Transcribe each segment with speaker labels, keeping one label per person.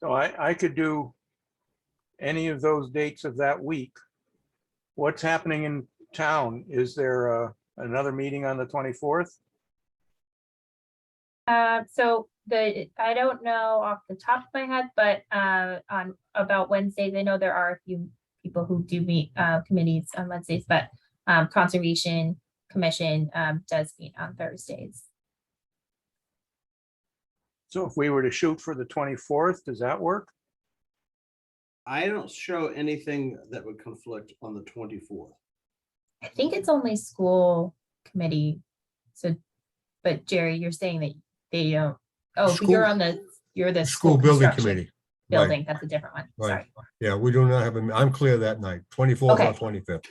Speaker 1: So I, I could do any of those dates of that week. What's happening in town? Is there uh, another meeting on the 24th?
Speaker 2: Uh, so the, I don't know off the top of my head, but, uh, on, about Wednesdays, I know there are a few people who do meet, uh, committees on Wednesdays, but, um, Conservation Commission, um, does meet on Thursdays.
Speaker 1: So if we were to shoot for the 24th, does that work?
Speaker 3: I don't show anything that would conflict on the twenty-fourth.
Speaker 2: I think it's only school committee, so, but Jerry, you're saying that they don't, oh, but you're
Speaker 4: School-
Speaker 2: on the, you're the.
Speaker 4: School building
Speaker 2: construction
Speaker 4: committee. Right.
Speaker 2: Building, that's a different one,
Speaker 4: Right.
Speaker 2: sorry.
Speaker 4: Yeah, we do not have, a. am clear that night, 24th or
Speaker 2: Okay.
Speaker 4: 25th.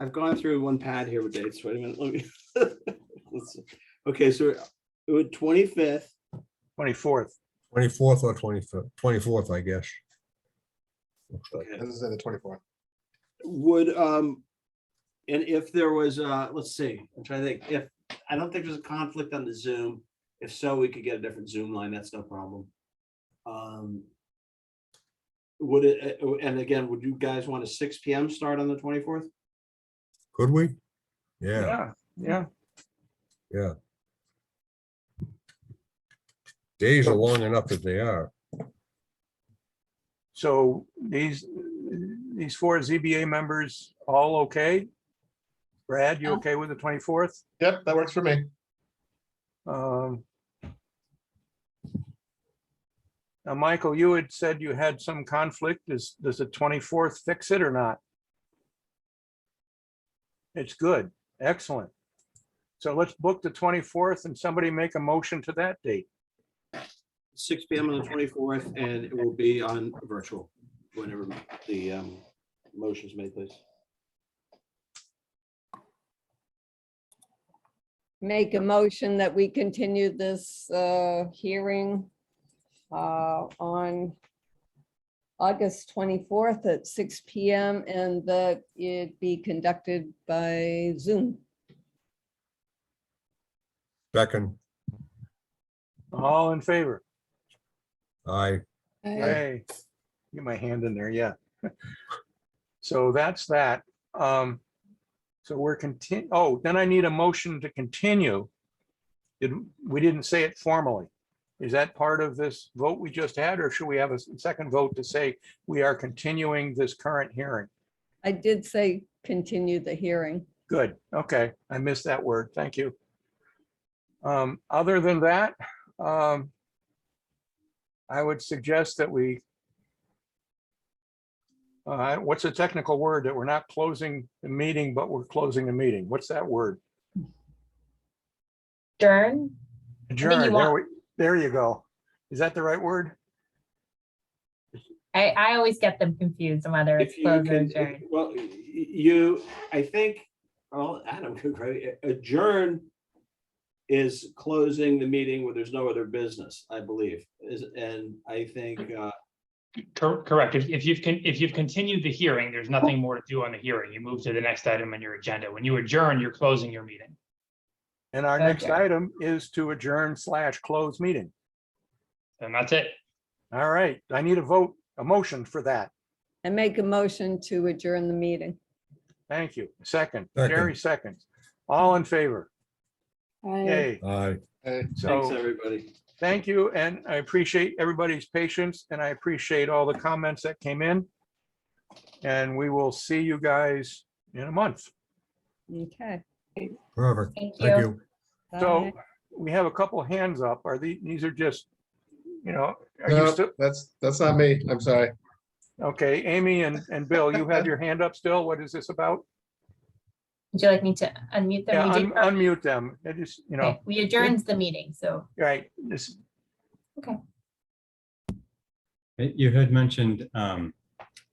Speaker 3: I've gone through one pad here with dates. Wait a minute, let me. Let's- Okay, so it would twenty-fifth,
Speaker 1: 24th,
Speaker 4: 24th or 25th, 24th, I guess. Looks like.
Speaker 3: Okay.
Speaker 5: This is the twenty-fourth.
Speaker 3: would, um, and if there was, uh, let's see, I'm trying to think, if, I don't think there's a conflict on the Zoom. If so, we could get a different Zoom line, that's no problem. Um. Would it, uh, and again, would you guys want a six P M start on the twenty-fourth?
Speaker 4: Could we? Yeah,
Speaker 1: yeah, yeah.
Speaker 4: days are long enough as they are.
Speaker 1: So these, these four ZBA members, all okay? Brad, you okay with the 24th?
Speaker 5: Yep, that works for me.
Speaker 1: Um, Now, Michael, you had said you had some conflict. Does, does the 24th fix it or not? It's good. Excellent. So let's book the 24th and somebody make a motion to that date.
Speaker 3: Six P M on the twenty-fourth, and it will be on virtual, whenever the, um, motion's made, please.
Speaker 6: make a motion that we continue this uh, hearing uh, on August 24th at six PM and that it be conducted by Zoom.
Speaker 4: Second,
Speaker 1: All in favor?
Speaker 4: I,
Speaker 1: Hey, get my hand in there, yeah. So that's that. Um, so we're continu, oh, then I need a motion to continue. Did, we didn't say it formally. Is that part of this vote we just had, or should we have a s- second vote to say we are continuing this current hearing?
Speaker 6: I did say continue the hearing.
Speaker 1: Good, okay, I missed that word, thank you. Um, other than that, um, I would suggest that we uh, what's a technical word that we're not closing the meeting, but we're closing the meeting? What's that word?
Speaker 2: Dern, you
Speaker 1: Adjourn, there
Speaker 2: want-
Speaker 1: we, there you go. Is that the right word?
Speaker 2: I, I always get them confused on whether it's
Speaker 3: If you
Speaker 2: closed or
Speaker 3: can,
Speaker 2: adjourned.
Speaker 3: well, y- you, I think, well, Adam could probably adjourn is closing the meeting where there's no other business, I believe, is, and I think, uh,
Speaker 7: Cor- Correct. If, if you've, con- if you've continued the hearing, there's nothing more to do on the hearing. You move to the next item on your agenda. When you adjourn, you're closing your meeting.
Speaker 1: And our next
Speaker 2: Okay.
Speaker 1: item is to adjourn slash close meeting.
Speaker 7: And that's it.
Speaker 1: All right, I need a vote, a motion for that.
Speaker 6: I make a motion to adjourn the meeting.
Speaker 1: Thank you. Second,
Speaker 4: Second.
Speaker 1: Jerry seconds. All in favor? Yay.
Speaker 4: I,
Speaker 5: Hey,
Speaker 3: thanks,
Speaker 1: So
Speaker 3: everybody.
Speaker 1: thank you, and I appreciate everybody's patience, and I appreciate all the comments that came in. And we will see you guys in a month.
Speaker 6: Okay.
Speaker 4: perfect.
Speaker 2: Thank
Speaker 4: Thank
Speaker 2: you.
Speaker 4: you.
Speaker 1: So
Speaker 6: bye.
Speaker 1: we have a couple hands up. Are these, these are just, you know, are you
Speaker 5: no,
Speaker 1: still,
Speaker 5: that's, that's not me. I'm sorry.
Speaker 1: okay, Amy and, and Bill, you have your hand up still. What is this about?
Speaker 2: Would you like me to unmute
Speaker 1: Yeah,
Speaker 2: them? We
Speaker 1: un-
Speaker 2: did-
Speaker 1: unmute them. It is, you know,
Speaker 2: okay, We adjourned the meeting, so,
Speaker 1: right, this,
Speaker 8: Uh, You had mentioned um,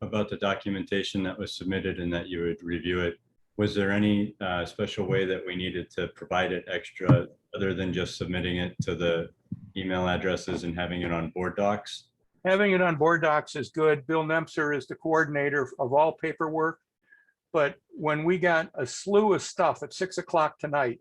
Speaker 8: about the documentation that was submitted and that you would review it. Was there any uh, special way that we needed to provide it extra, other than just submitting it to the email addresses and having it on board docs?
Speaker 1: having it on board docs is good. Bill Nemser is the coordinator of all paperwork. But when we got a slew of stuff at six o'clock tonight